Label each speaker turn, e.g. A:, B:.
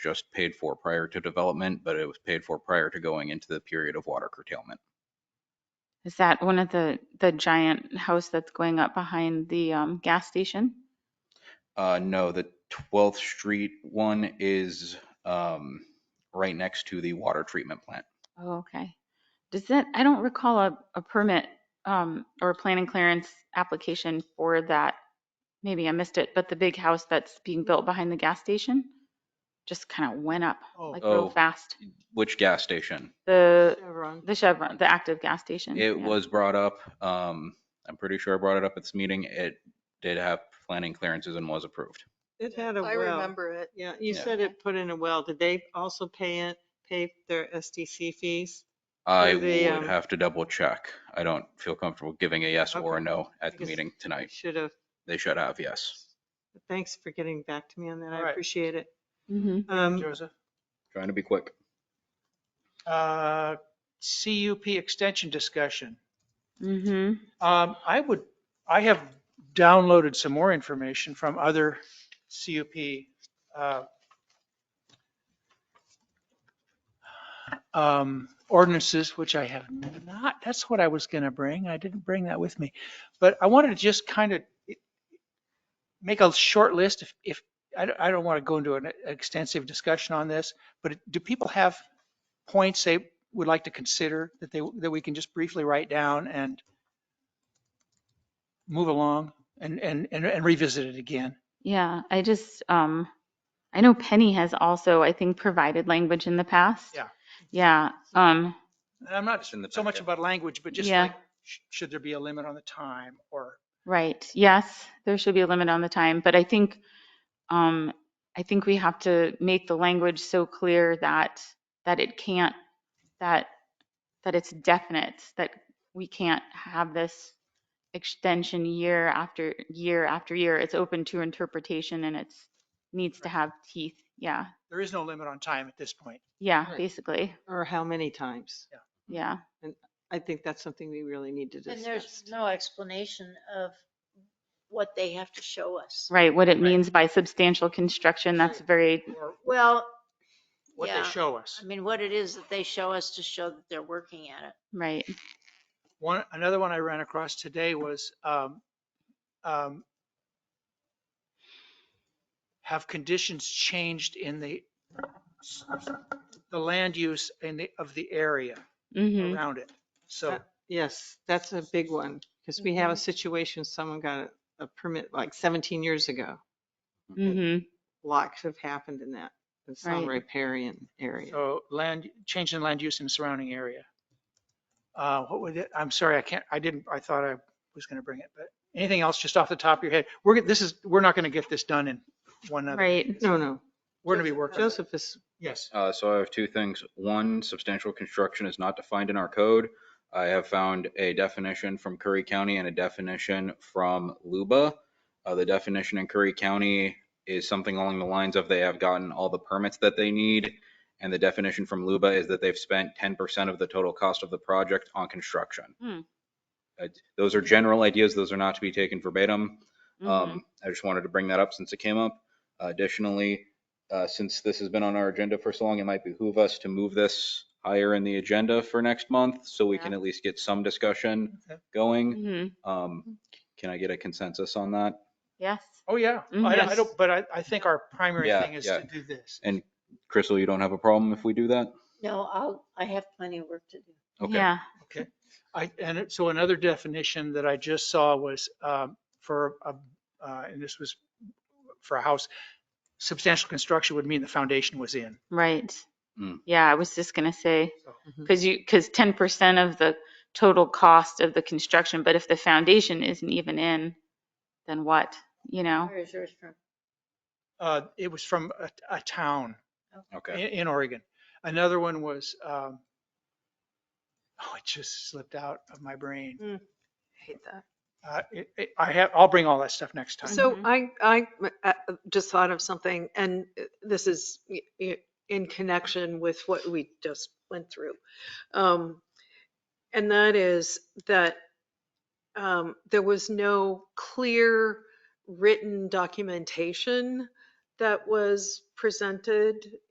A: just paid for prior to development, but it was paid for prior to going into the period of water curtailment.
B: Is that one of the, the giant house that's going up behind the um, gas station?
A: Uh, no, the 12th Street one is, um, right next to the water treatment plant.
B: Oh, okay. Does that, I don't recall a, a permit um, or a planning clearance application for that. Maybe I missed it, but the big house that's being built behind the gas station just kind of went up like real
A: Oh.
B: fast.
A: Which gas station?
B: The,
C: Chevron.
B: the Chevron, the active gas station.
C: Mm,
A: It
B: yeah.
A: was brought up, um, I'm pretty sure I brought it up at this meeting. It did have planning clearances and was approved.
C: It had a
D: I
C: well.
D: remember it.
C: Yeah, you
A: Yeah.
C: said it put in a well. Did they also pay it, pay their SDC fees?
A: I
C: Through the,
A: would
C: um,
A: have to double check. I don't feel comfortable giving a yes or a
C: Okay.
A: no at the
C: Because-
A: meeting
C: I
A: tonight.
C: Should have.
A: They should have, yes.
C: Thanks for getting back to me on that.
E: All
C: I
E: right. Mm-hmm.
C: appreciate it.
B: Mhm.
C: Um,
E: Joseph.
A: Trying to be quick.
E: Uh, CUP extension discussion.
B: Mhm.
E: Um, I would, I have downloaded some more information from other CUP. uh, um, Ordinances, which I have not, that's what I was going to bring. I didn't bring that with me. But I wanted to just kind of make a short list if, if, I don't, I don't want to go into an extensive discussion on this, but do people have points they would like to consider that they, that we can just briefly write down and move along and, and, and and revisit it again.
B: Yeah, I just, um, I know Penny has also, I think, provided language in the past.
E: Yeah.
B: Yeah, um,
E: And I'm not
A: It's in the
E: so much
A: packet.
E: about language, but just
B: Yeah.
E: like, sh- should there be a limit on the time or,
B: Right, yes, there should be a limit on the time, but I think, um, I think we have to make the language so clear that, that it can't, that, that it's definite, that we can't have this extension year after year after year. It's open to interpretation and it's, needs to have teeth, yeah,
E: there is no limit on time at this point.
B: yeah,
C: Right.
B: basically,
C: or how many times?
B: yeah.
C: I think that's something we really need to
D: And there's
C: discuss.
D: no explanation of what they have to show us.
B: Right, what it means by substantial construction, that's very,
E: Or
D: Well,
E: what they
D: Yeah.
E: show us.
D: I mean, what it is that they show us to show that they're working at it.
B: right,
E: One, another one I ran across today was, um, um, have conditions changed in the, the land use in the, of the area
B: mm-hmm,
E: around it? So.
C: Uh, Yes, that's a big one, because we have a situation, someone got a- a permit like 17 years ago. Mm.
B: mm-hmm,
C: Lots have happened in that, in some
B: Right.
C: riparian area.
E: So Oh, land, change in land use in the surrounding area. Uh, What would it, I'm sorry, I can't, I didn't, I thought I was going to bring it, but anything else just off the top of your head? We're, gonna- this is, we're not going to get this done in one other.
B: right.
C: No, no,
E: We're going to be working. on it.
C: Joseph is,
E: Yes.
A: Uh, so I have two things. One, substantial construction is not defined in our code. I have found a definition from Curry County and a definition from Luba. Uh, the definition in Curry County is something along the lines of they have gotten all the permits that they need. And the definition from Luba is that they've spent ten percent of the total cost of the project on construction.
B: Hmm.
A: Uh, Those are general ideas. Those are not to be taken verbatim.
B: mhm.
A: Um, I just wanted to bring that up since it came up. Additionally, uh, since this has been on our agenda for so long, it might behoove us to move this higher in the agenda for next month so we can at least get some discussion
E: Okay.
A: going.
B: Mhm.
A: Um, can I get a consensus on that?
B: Yes.
E: Oh, yeah. I-
B: Mhm.
E: I don't, but I, I think our primary
A: Yeah,
E: thing is
A: yeah.
E: to do this.
A: Crystal, you don't have a problem if we do that?
D: No, I'll, I have plenty of work to do.
A: Okay.
B: Yeah.
E: I, and it- so another definition that I just saw was um, for, a- uh, and this was for a house, substantial construction would mean the foundation was in.
B: Right.
A: Mm.
B: Yeah, I was just gonna say,
E: So-
B: because you, because ten percent of the total cost of the construction, but if the foundation isn't even in, then what, you know?
E: Oh.
D: Where is yours from?
E: Uh, It was from a, a town.
A: Okay.
E: in, in Oregon. Another one was, um, oh, it just slipped out of my brain.
C: hate that.
E: Uh, it- it- I have, I'll bring all that stuff next time.
F: So
B: Mhm.
F: I, I uh, just thought of something, and this is y- y- in connection with what we just went through. Um, And that is that um, there was no clear written documentation that was presented